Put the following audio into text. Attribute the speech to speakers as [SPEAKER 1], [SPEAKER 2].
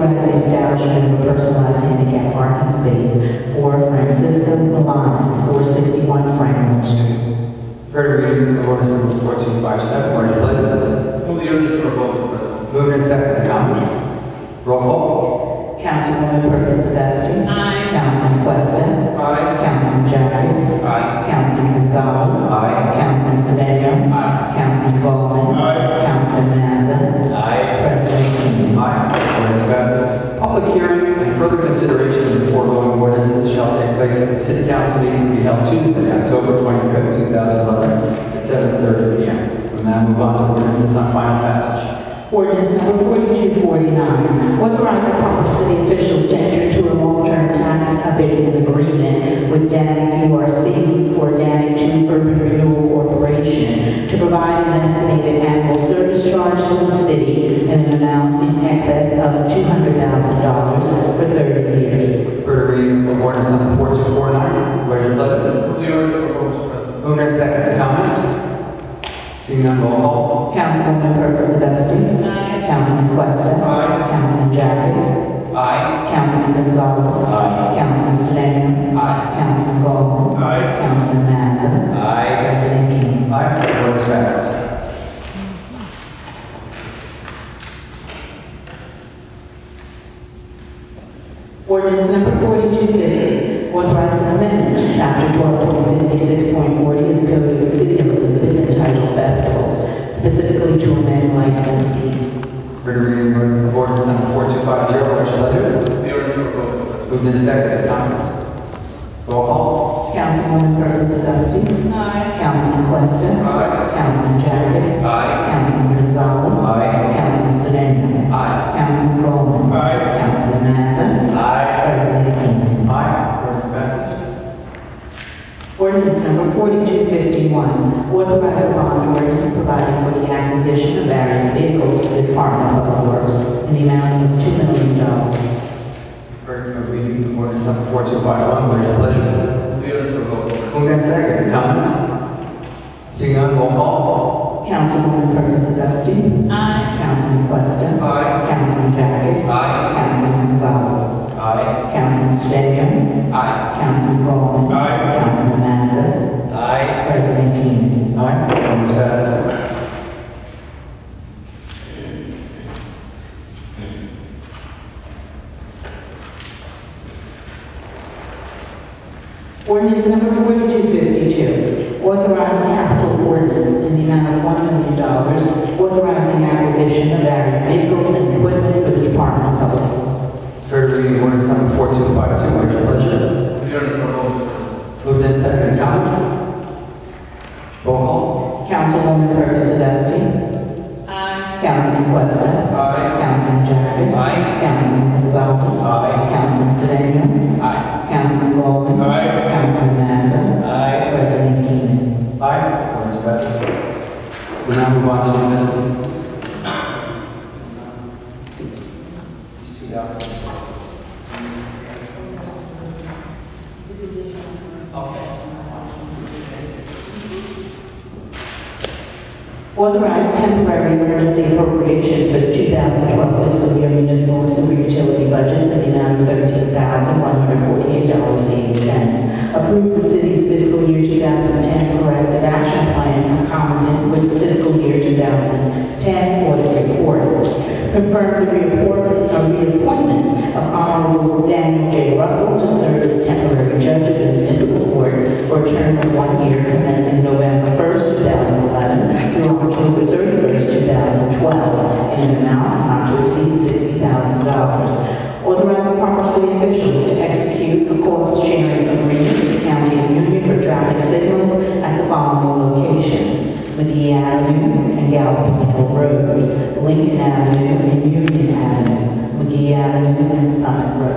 [SPEAKER 1] establishment of a personalized handicap parking space for Francisco Milanes, 461 Franklin Street.
[SPEAKER 2] Heard a reading of ordinance number fourteen five seven, what is your pleasure?
[SPEAKER 3] Move the ordinance for a vote, President.
[SPEAKER 2] Moved and seconded, comments? Roll call.
[SPEAKER 1] Councilwoman Perkins Dusting.
[SPEAKER 4] Aye.
[SPEAKER 1] Councilman Questa.
[SPEAKER 3] Aye.
[SPEAKER 1] Councilman Jacobs.
[SPEAKER 2] Aye.
[SPEAKER 1] Councilman Gonzalez.
[SPEAKER 2] Aye.
[SPEAKER 1] Councilman Sedan.
[SPEAKER 2] Aye.
[SPEAKER 1] Councilman Gollman.
[SPEAKER 3] Aye.
[SPEAKER 1] Councilman Mazza.
[SPEAKER 2] Aye.
[SPEAKER 1] President King.
[SPEAKER 2] Aye. Ordinance passes. Public hearing and further consideration of the foregoing ordinances shall take place at the city council meeting to be held Tuesday, October twenty-fifth, two thousand eleven, at seven thirty P M. We'll now move on to ordinances on final passage.
[SPEAKER 1] Ordinance number 4249, authorizing proper city officials to enter into a long-term tax abatement agreement with Danic URC for Danic Two Urban Renewal Corporation to provide an estimated annual service charge to the city in an amount in excess of $200,000 for 30 years.
[SPEAKER 2] Heard a reading of ordinance number fourteen four nine, what is your pleasure?
[SPEAKER 3] Move the ordinance for a vote, President.
[SPEAKER 2] Moved and seconded, comments? Seeing none, roll call.
[SPEAKER 1] Councilwoman Perkins Dusting.
[SPEAKER 4] Aye.
[SPEAKER 1] Councilman Questa.
[SPEAKER 3] Aye.
[SPEAKER 1] Councilman Jacobs.
[SPEAKER 2] Aye.
[SPEAKER 1] Councilman Gonzalez.
[SPEAKER 2] Aye.
[SPEAKER 1] Councilman Sedan.
[SPEAKER 2] Aye.
[SPEAKER 1] Councilman Gollman.
[SPEAKER 3] Aye.
[SPEAKER 1] Councilman Mazza.
[SPEAKER 2] Aye.
[SPEAKER 1] President King.
[SPEAKER 2] Aye. Ordinance passes.
[SPEAKER 1] Ordinance number 4250, authorizing amendment to chapter 12.56.40 of the Code of the City of Elizabeth entitled Festivals, specifically to amend license fees.
[SPEAKER 2] Read a reading of ordinance number 4250, which letter?
[SPEAKER 3] Move the ordinance for a vote, President.
[SPEAKER 2] Moved and seconded, comments? Roll call.
[SPEAKER 1] Councilwoman Perkins Dusting.
[SPEAKER 4] Aye.
[SPEAKER 1] Councilman Questa.
[SPEAKER 3] Aye.
[SPEAKER 1] Councilman Jacobs.
[SPEAKER 2] Aye.
[SPEAKER 1] Councilman Gonzalez.
[SPEAKER 2] Aye.
[SPEAKER 1] Councilman Sedan.
[SPEAKER 2] Aye.
[SPEAKER 1] Councilman Gollman.
[SPEAKER 3] Aye.
[SPEAKER 1] Councilman Mazza.
[SPEAKER 2] Aye.
[SPEAKER 1] President King.
[SPEAKER 2] Aye. Ordinance passes.
[SPEAKER 1] Ordinance number 4251, authorizing bond ordinance providing for the acquisition of various vehicles for the Department of Public Works in the amount of $2 million.
[SPEAKER 2] Heard a reading of ordinance number 4251, what is your pleasure?
[SPEAKER 3] Move the ordinance for a vote, President.
[SPEAKER 2] Moved and seconded, comments? Seeing none, roll call.
[SPEAKER 1] Councilwoman Perkins Dusting.
[SPEAKER 4] Aye.
[SPEAKER 1] Councilman Questa.
[SPEAKER 3] Aye.
[SPEAKER 1] Councilman Jacobs.
[SPEAKER 2] Aye.
[SPEAKER 1] Councilman Gonzalez.
[SPEAKER 2] Aye.
[SPEAKER 1] Councilman Sedan.
[SPEAKER 2] Aye.
[SPEAKER 1] Councilman Gollman.
[SPEAKER 3] Aye.
[SPEAKER 1] Councilman Mazza.
[SPEAKER 2] Aye.
[SPEAKER 1] President King.
[SPEAKER 2] Aye. Ordinance passes.
[SPEAKER 1] Ordinance number 4252, authorizing capital ordinance in the amount of $1 million, authorizing acquisition of various vehicles and equipment for the Department of Public Works.
[SPEAKER 2] Heard a reading of ordinance number 4252, what is your pleasure?
[SPEAKER 3] Move the ordinance for a vote, President.
[SPEAKER 2] Moved and seconded, comments? Roll call.
[SPEAKER 1] Councilwoman Perkins Dusting.
[SPEAKER 4] Aye.
[SPEAKER 1] Councilman Questa.
[SPEAKER 3] Aye.
[SPEAKER 1] Councilman Jacobs.
[SPEAKER 2] Aye.
[SPEAKER 1] Councilman Gonzalez.
[SPEAKER 2] Aye.
[SPEAKER 1] Councilman Sedan.
[SPEAKER 2] Aye.
[SPEAKER 1] Councilman Gollman.
[SPEAKER 3] Aye.
[SPEAKER 1] Councilman Mazza.
[SPEAKER 2] Aye.
[SPEAKER 1] President Keenan.
[SPEAKER 2] Aye. Ordinance passes. We'll now move on to new business. These two documents.
[SPEAKER 1] Authorize temporary emergency appropriations for the 2012 fiscal year municipal and sewer utility budgets in the amount of $13,148.80. Approve the city's fiscal year 2010 corrective action plan concomitant with the fiscal year 2010 audit report. Confirm the reappoint- uh, reappointment of Honorable Daniel J. Russell to serve as temporary judge of the municipal court for a term of one year commencing November 1st, 2011 through October 31st, 2012, in an amount not to exceed $60,000. Authorize proper city officials to execute a cost-sharing agreement with the county and union for traffic signals at the following locations: McGee Avenue and Gallup Hill Road, Lincoln Avenue and Union Avenue, McGee Avenue and Summit Road.